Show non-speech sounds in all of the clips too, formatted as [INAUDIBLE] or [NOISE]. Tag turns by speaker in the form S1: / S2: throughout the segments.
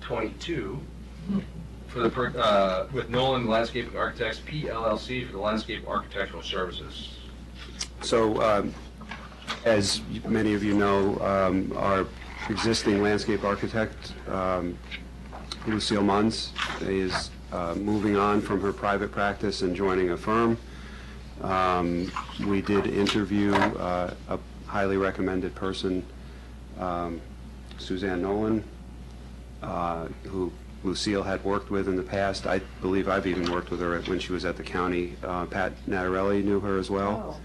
S1: 22 for the, per- uh, with Nolan Landscaping Architects, PLLC, for the landscape architectural services.
S2: So, um, as many of you know, um, our existing landscape architect, um, Lucille Munns, is uh, moving on from her private practice and joining a firm. Um, We did interview uh, a highly recommended person, um, Suzanne Nolan, uh, who Lucille had worked with in the past. I believe I've even worked with her when she was at the county. Uh, Pat Natarelli knew her as well.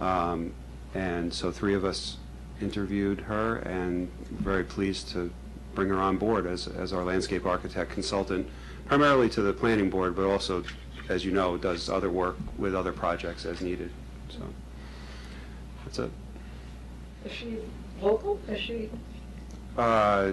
S3: Oh,
S2: Um, And so three of us interviewed her and very pleased to bring her on board as, as our landscape architect consultant, primarily to the planning board, but also, as you know, does other work with other projects as needed, so. That's it.
S3: Is she local? Is she,
S2: Uh,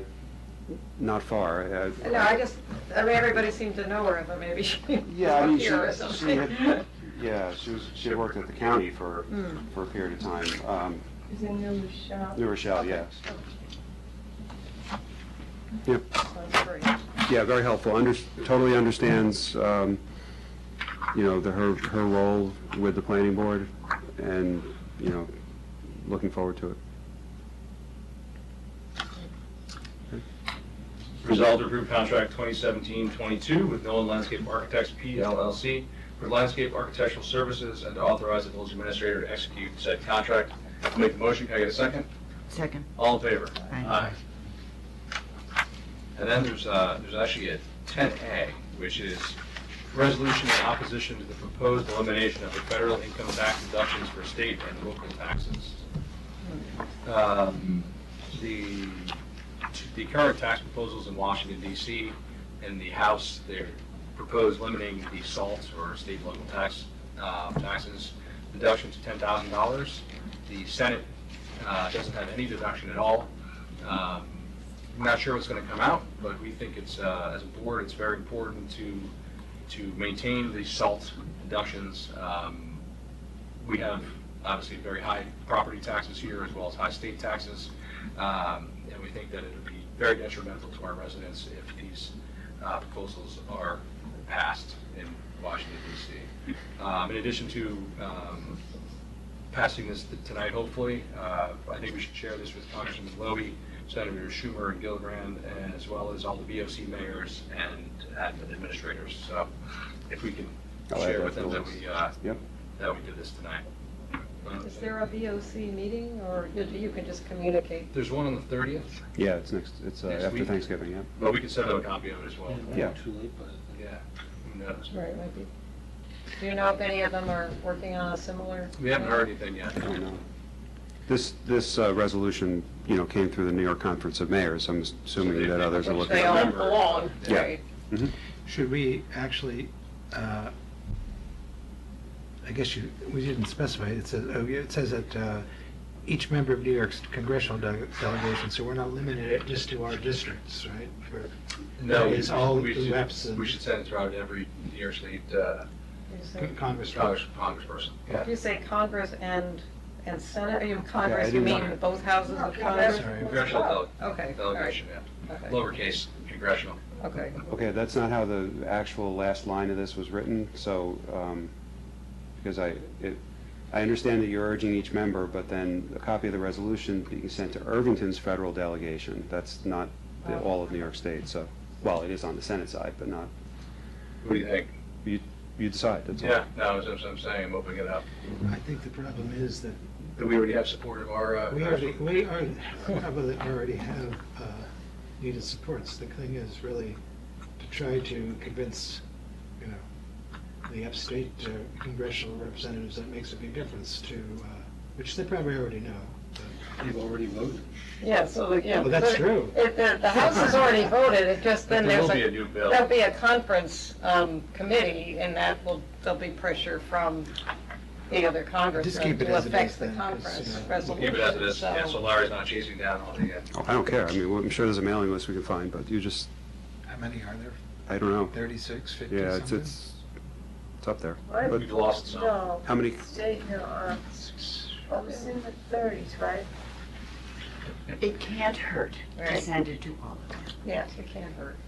S2: Not far. Uh,
S3: no, I just, I mean, everybody seemed to know her, but maybe she
S2: Yeah, I mean,
S3: was
S2: she,
S3: here or
S2: she
S3: something. [LAUGHS]
S2: had, yeah, she was, she had worked at the county for,
S3: Hmm.
S2: for a period of time. Um,
S4: Is in New Rochelle.
S2: New Rochelle, yes.
S3: Sounds great.
S2: Yeah, very helpful, under, totally understands, um, you know, the, her, her role with the planning board, and, you know, looking forward to it.
S1: Resolved to approve contract 2017-22 with Nolan Landscape Architects, PLLC, for landscape architectural services, and to authorize the village administrator to execute said contract. I'll Make the motion, can I get a second?
S5: Second.
S1: All in favor?
S5: Aye.
S1: And then there's, uh, there's actually a 10A, which is resolution in opposition to the proposed elimination of the federal income tax deductions for state and local taxes. Um, The, the current tax proposals in Washington DC, in the House, they're proposed limiting the SALT or state and local tax, uh, taxes deduction to $10,000. The Senate uh, doesn't have any deduction at all. Um, I'm Not sure what's going to come out, but we think it's, uh, as a board, it's very important to, to maintain the SALT deductions. Um, We have obviously very high property taxes here as well as high state taxes. Um, And we think that it would be very detrimental to our residents if these uh, proposals are passed in Washington DC. Um, In addition to um, passing this tonight, hopefully. Uh, I think we should share this with Congressman Lowy, Senator Schumer, and Gillibrand, and as well as all the VOC mayors and admin administrators. So if we can
S2: I'll add
S1: share
S2: that
S1: with them
S2: to the
S1: that
S2: list.
S1: we, uh,
S2: Yep.
S1: that we did this tonight.
S3: Is there a VOC meeting, or you- you can just communicate?
S1: There's one on the 30th,
S2: Yeah, it's next, it's uh,
S1: Next
S2: after
S1: week.
S2: Thanksgiving, yeah.
S1: but we can send out a copy of it as well.
S2: Yeah.
S6: Too late, but.
S1: Yeah, who knows?
S3: Right, might be. Do you know if any of them are working on a similar?
S1: We haven't heard anything yet.
S2: I don't know. This, this uh, resolution, you know, came through the New York Conference of Mayors, I'm assuming that others are
S3: Which
S2: looking
S3: they
S2: at
S3: all
S2: it.
S3: belong,
S2: Yeah.
S3: right?
S6: Should we actually, uh, I guess you, we didn't specify, it says, oh, yeah, it says that uh, each member of New York's congressional de- delegation, so we're not limited it just to our districts, right? For-
S1: No,
S6: It's all
S1: we should-
S6: reps and-
S1: We should send it out to every New York State uh,
S3: You say-
S6: Congress.
S1: Congress- congressperson.
S3: If you say Congress and, and Senate, you mean
S2: Yeah, I
S3: Congress, you
S2: didn't
S3: mean
S2: want-
S3: both houses of Congress? Oh,
S6: Sorry.
S1: Congressional dele-
S3: Okay, all right,
S1: delegation, yeah.
S3: okay,
S1: Lowercase congressional.
S3: okay.
S2: Okay, that's not how the actual last line of this was written, so, um, because I, it, I understand that you're urging each member, but then a copy of the resolution being sent to Irvington's federal delegation, that's not the- all of New York State, so, well, it is on the Senate side, but not,
S1: What do you think?
S2: you decide, that's all.
S1: Yeah, no, that's what I'm saying, I'm opening it up.
S6: I think the problem is that
S1: Do we already have support of our, uh,
S6: we already, we already, probably already have uh, needed supports. The thing is really to try to convince, you know, the upstate uh, congressional representatives that makes a big difference to, uh, which they probably already know.
S7: They've already voted.
S3: Yeah, so, the- yeah.
S6: Well, that's
S3: but
S6: true.
S3: If the, the House has already voted, it just,
S1: There
S3: then there's
S1: will be a
S3: a,
S1: new bill.
S3: there'll be a conference um, committee, and that will, there'll be pressure from the other Congress
S6: Just keep it
S3: to
S6: as it
S3: affect
S6: is
S3: the
S6: then, 'cause,
S3: conference
S6: you know,
S1: We'll Keep it as it
S3: resolution,
S1: is, yeah, so
S3: so.
S1: Larry's not chasing down all the, uh,
S2: Oh, I don't care, I mean, well, I'm sure there's a mailing list we can find, but you just,
S6: How many are there?
S2: I don't know,
S6: 36, 50
S2: yeah, it's, it's, it's up there.
S4: I
S2: But
S1: we've lost some.
S4: No,
S2: how many,
S4: state, no, uh, I was in the thirties, right?
S5: It can't hurt to
S3: Right.
S5: send it to all of them.
S3: Yes, it can't hurt.